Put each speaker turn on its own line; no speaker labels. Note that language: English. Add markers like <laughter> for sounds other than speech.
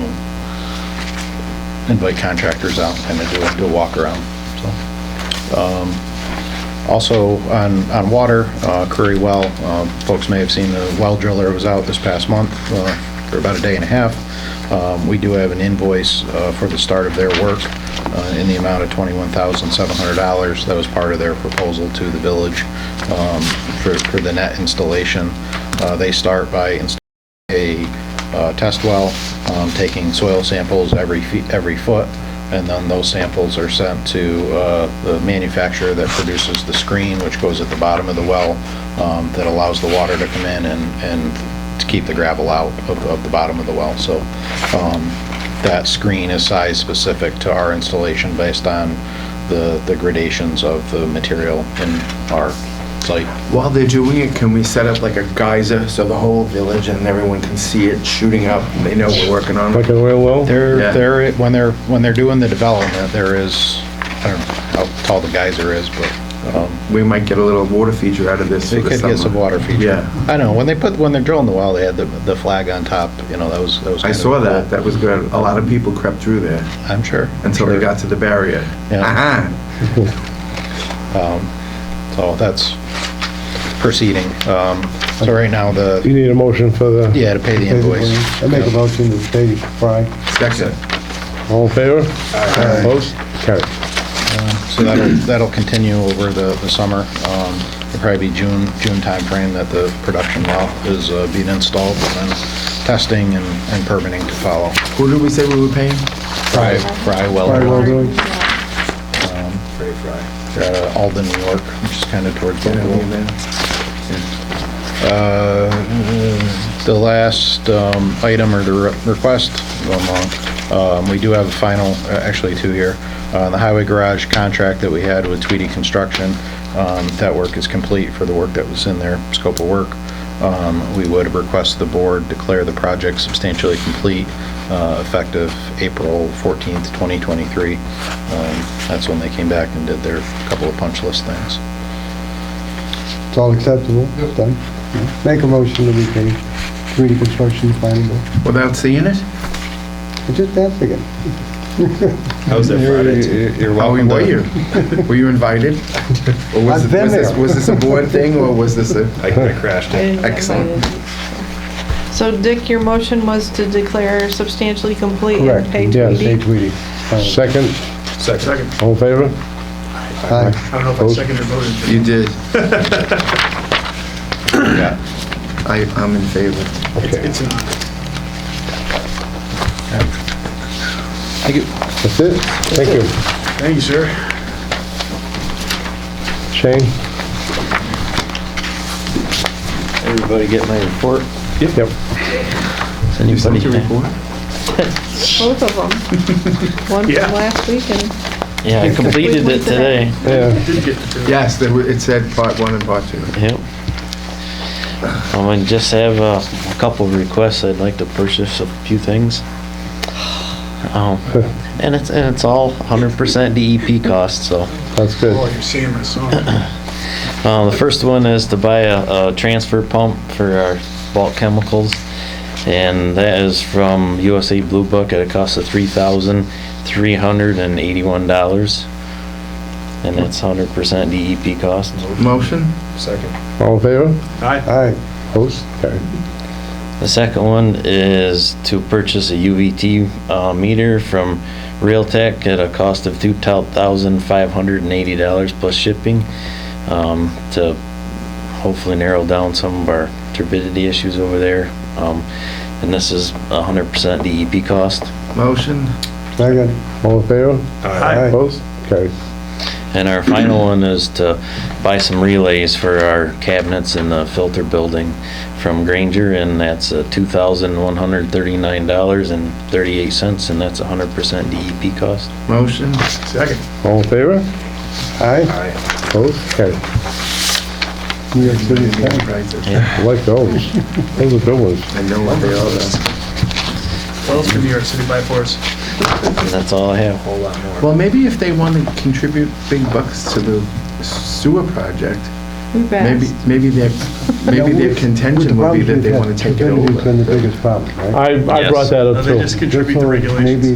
invite contractors out, kind of do a, do a walk around, so. Um, Also, on, on water, uh, Curry Well, um, folks may have seen the well driller was out this past month uh, for about a day and a half. Um, We do have an invoice uh, for the start of their work uh, in the amount of $21,700. That was part of their proposal to the village um, for, for the net installation. Uh, They start by installing a uh, test well, um, taking soil samples every feet, every foot, and then those samples are sent to uh, the manufacturer that produces the screen, which goes at the bottom of the well, um, that allows the water to come in and, and to keep the gravel out of, of the bottom of the well. So um, that screen is size specific to our installation based on the, the gradations of the material in our site.
While they're doing it, can we set up like a geyser so the whole village and everyone can see it shooting up? and They know we're working on
Like
it.
a real well?
Yeah.
There, there, when they're, when they're doing the development, there is, I don't know how tall the geyser is, but, um,
We might get a little water feature out of this. for
it
the
could get some
summer.
water feature.
Yeah,
I know, when they put, when they're drilling the well, they had the, the flag on top, you know, that was, that was.
I
kind of
saw that.
cool.
That was good. A lot of people crept through there
I'm sure.
until they
Sure.
got to the barrier.
Yeah.
Ah,
So that's proceeding. Um, so right now, the,
You need a motion for the...
yeah, to pay the invoice.
I make a motion to pay Fry.
second.
All in favor? Opposed? Carried.
So that'll, that'll continue over the, the summer. Um, It'll probably be June, June timeframe that the production well is uh, being installed, and then testing and and permitting to follow.
Who did we say we were paying?
Fry, Fry
Fry
Weller,
Weller. doing?
Fray Fry.
They're out of uh, Alden, New York, which is kind of towards
Yeah, we
Buffalo.
there.
Uh, The last um, item or the re- request, going long, um, we do have a final, uh, actually two here, Uh, the highway garage contract that we had with Tweedy Construction. um, That work is complete for the work that was in their scope of work. Um, We would request the board declare the project substantially complete uh, effective April 14th, 2023. Um, That's when they came back and did their couple of punch list things.
It's all acceptable, it's done. Make a motion to repay Community Construction Planning Board.
Without seeing it?
I just asked again.
I was there Friday
You're
How were you?
<laughs>
Were you invited? Or was
I've
it-
been
was this-
there.
Was this a board thing or was this a? I crashed
I didn't get
Excellent.
invited. So Dick, your motion was to declare substantially complete and pay
Yeah, pay
Tweedy?
Tweedy. Second,
Second.
all in favor?
I
Aye.
don't know if I seconded or voted.
Oh. You
<laughs>
did.
Yeah.
I, I'm in favor.
Okay,
It's an honor.
Thank you.
that's it? Thank you.
Thank you, sir.
Shane?
Everybody get my report?
Yep.
Something to report?
Both of them. One from
Yeah.
last week and
<laughs>
Yeah, I completed
Completely
it today.
Yeah,
Did get to do it.
Yes, there were- it said part one and part two.
Yep. Um, I just have uh, a couple of requests. I'd like to purchase a few things.
<laughs>
Um, and it's, and it's all 100% DEP E cost, so.
that's good.
Oh, you're seeing my song.
Uh, the first one is to buy a, a transfer pump for our bulk chemicals. And that is from USA Blue Book at a cost of three thousand three hundred and eighty-one dollars. And that's hundred percent DEP cost.
Motion?
All in favor?
Hi.
Aye. Opposed? Carried.
The second one is to purchase a UVT uh, meter from Realtek at a cost of two thousand five hundred and eighty dollars plus shipping um, to hopefully narrow down some of our turbidity issues over there. Um, and this is hundred percent DEP cost.
Motion?
Second, all in favor?
Hi.
Opposed? Carried.
And our final one is to buy some relays for our cabinets in the filter building from Granger, and that's uh, $2,139.38, and that's 100% DEP E cost.
Motion?
Second.
All in favor? Aye. Opposed? Carried. New York City, I
I
like those. Those are good ones.
know what they are.
What else can New York City buy for us?
And that's all I have.
Well, maybe if they want to contribute big bucks to the sewer project,
we
maybe,
passed.
maybe their, maybe their
With-
contention
with the
would be
problems
that they
we've
want
had,
to take it
turbidity's
over.
been the biggest problem, right?
I, I
Yes.
brought that
No,
up
They
too.
just contribute the
Therefore, maybe
regulations.